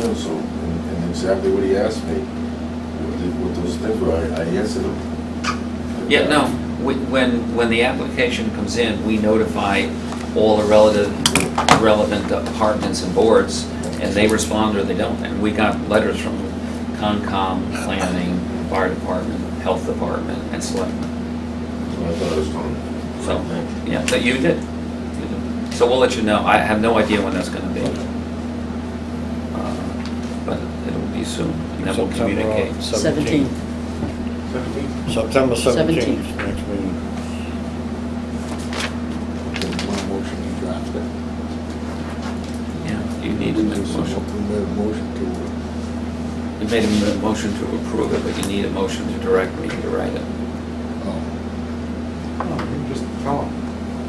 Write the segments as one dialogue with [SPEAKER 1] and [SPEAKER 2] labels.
[SPEAKER 1] know, so, and and exactly what he asked me, what the- what those things were, I I answered him.
[SPEAKER 2] Yeah, no, we- when, when the application comes in, we notify all the relative, relevant departments and boards, and they respond or they don't. And we got letters from Concom, Planning, Fire Department, Health Department, and Selectmen.
[SPEAKER 1] So I thought it was fun.
[SPEAKER 2] So, yeah, that you did. You did. So we'll let you know. I have no idea when that's gonna be. Uh, But it'll be soon, and then we'll
[SPEAKER 3] September, uh,
[SPEAKER 2] communicate.
[SPEAKER 4] 17.
[SPEAKER 3] September
[SPEAKER 4] 17th.
[SPEAKER 3] seventeenth, next meeting.
[SPEAKER 5] One motion you dropped it.
[SPEAKER 2] Yeah, you need to make a motion.
[SPEAKER 5] We made a motion to,
[SPEAKER 2] You made a motion to approve it, but you need a motion to direct me to write it.
[SPEAKER 5] um,
[SPEAKER 6] Oh, you Just tell them.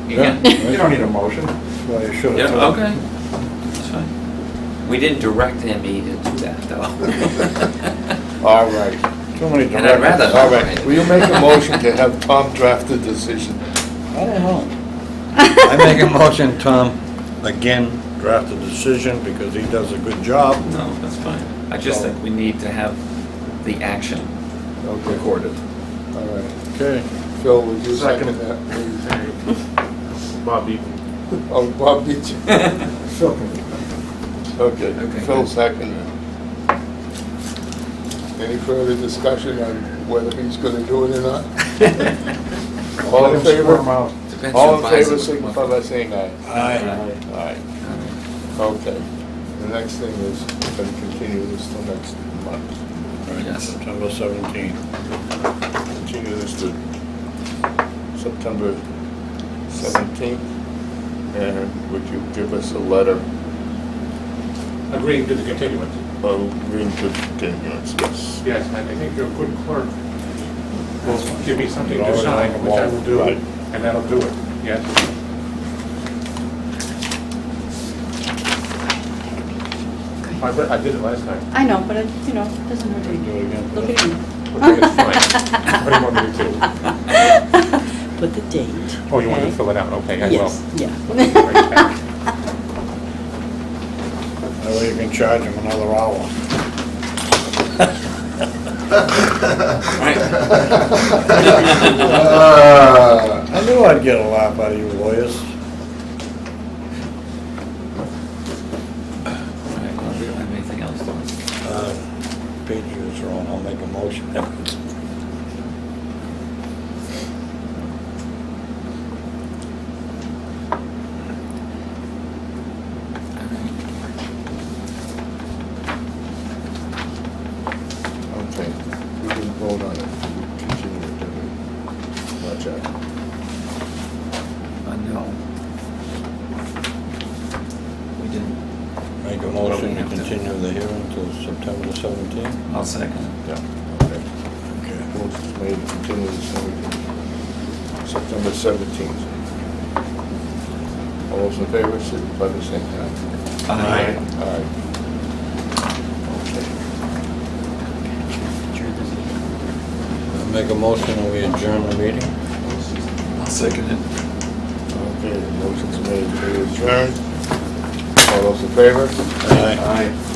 [SPEAKER 2] You
[SPEAKER 3] Yeah.
[SPEAKER 2] can-
[SPEAKER 6] You don't need a motion.
[SPEAKER 3] Well, you should
[SPEAKER 2] Yeah,
[SPEAKER 3] have.
[SPEAKER 2] okay. That's fine. We didn't direct him either to that, though.
[SPEAKER 5] all right.
[SPEAKER 3] Too many directions.
[SPEAKER 2] And I'd rather not
[SPEAKER 5] All
[SPEAKER 2] write
[SPEAKER 5] right,
[SPEAKER 2] it.
[SPEAKER 5] will you make a motion to have Tom draft the decision?
[SPEAKER 3] I don't know. I make a motion, Tom, again, draft a decision because he does a good job.
[SPEAKER 2] No, that's fine. I just think we need to have the action
[SPEAKER 5] Okay,
[SPEAKER 2] recorded.
[SPEAKER 5] all right.
[SPEAKER 3] Okay.
[SPEAKER 5] Phil, would you second
[SPEAKER 6] Second.
[SPEAKER 5] that? please?
[SPEAKER 6] Bob Eaton.
[SPEAKER 5] Oh, Bob did you?
[SPEAKER 6] Phil can
[SPEAKER 2] Okay,
[SPEAKER 5] Okay, Phil
[SPEAKER 2] good.
[SPEAKER 5] seconded. Any further discussion on whether he's gonna do it or not? All
[SPEAKER 6] Let
[SPEAKER 5] in
[SPEAKER 6] him squirm
[SPEAKER 5] favor?
[SPEAKER 6] out.
[SPEAKER 2] Depends
[SPEAKER 5] All
[SPEAKER 2] who
[SPEAKER 5] in
[SPEAKER 2] buys
[SPEAKER 5] favor,
[SPEAKER 2] it.
[SPEAKER 5] signify by saying aye.
[SPEAKER 3] Aye.
[SPEAKER 5] Aye. Okay. The next thing is, we're gonna continue this till next month.
[SPEAKER 3] All right,
[SPEAKER 2] Yes.
[SPEAKER 3] September seventeenth.
[SPEAKER 5] Continue this to September seventeenth. And would you give us a letter
[SPEAKER 7] agreeing to the continuance.
[SPEAKER 5] of green continuance, yes?
[SPEAKER 7] Yes, I I think your good clerk will give me something
[SPEAKER 5] Right.
[SPEAKER 7] to sign, which I will do,
[SPEAKER 5] Right.
[SPEAKER 7] and that'll do it, yes. I bet- I did it last time.
[SPEAKER 4] I know, but, it you know, it doesn't hurt to
[SPEAKER 3] Do it again.
[SPEAKER 4] Look at me.
[SPEAKER 7] Okay, it's fine. What do you want me to
[SPEAKER 4] do? Put the date.
[SPEAKER 7] Oh, you wanted to
[SPEAKER 4] okay?
[SPEAKER 7] fill it out, okay, I will.
[SPEAKER 4] Yes,
[SPEAKER 7] Right.
[SPEAKER 4] yeah.
[SPEAKER 3] That way you can charge him another hour.
[SPEAKER 5] Ah.
[SPEAKER 3] I knew I'd get a laugh out of you lawyers.
[SPEAKER 2] All right, well, we don't have anything else, do we?
[SPEAKER 3] Uh, Pete, you was wrong. I'll make a motion.
[SPEAKER 5] Okay, we can vote on it, We continue it, don't we? Watch out.
[SPEAKER 2] Uh, no. We didn't.
[SPEAKER 3] Make a motion to continue the hearing until September seventeenth.
[SPEAKER 2] I'll second.
[SPEAKER 5] Yeah, okay.
[SPEAKER 3] Okay.
[SPEAKER 5] Motion's made, to continue this hearing. September seventeenth. All those in favor, signify by saying aye.
[SPEAKER 2] Aye.
[SPEAKER 5] Aye. Okay.
[SPEAKER 3] I Make a motion and we adjourn the meeting.
[SPEAKER 2] I'll second it.
[SPEAKER 5] Okay, motion's made to adjourn. All those in favor?
[SPEAKER 3] Aye.
[SPEAKER 5] Aye.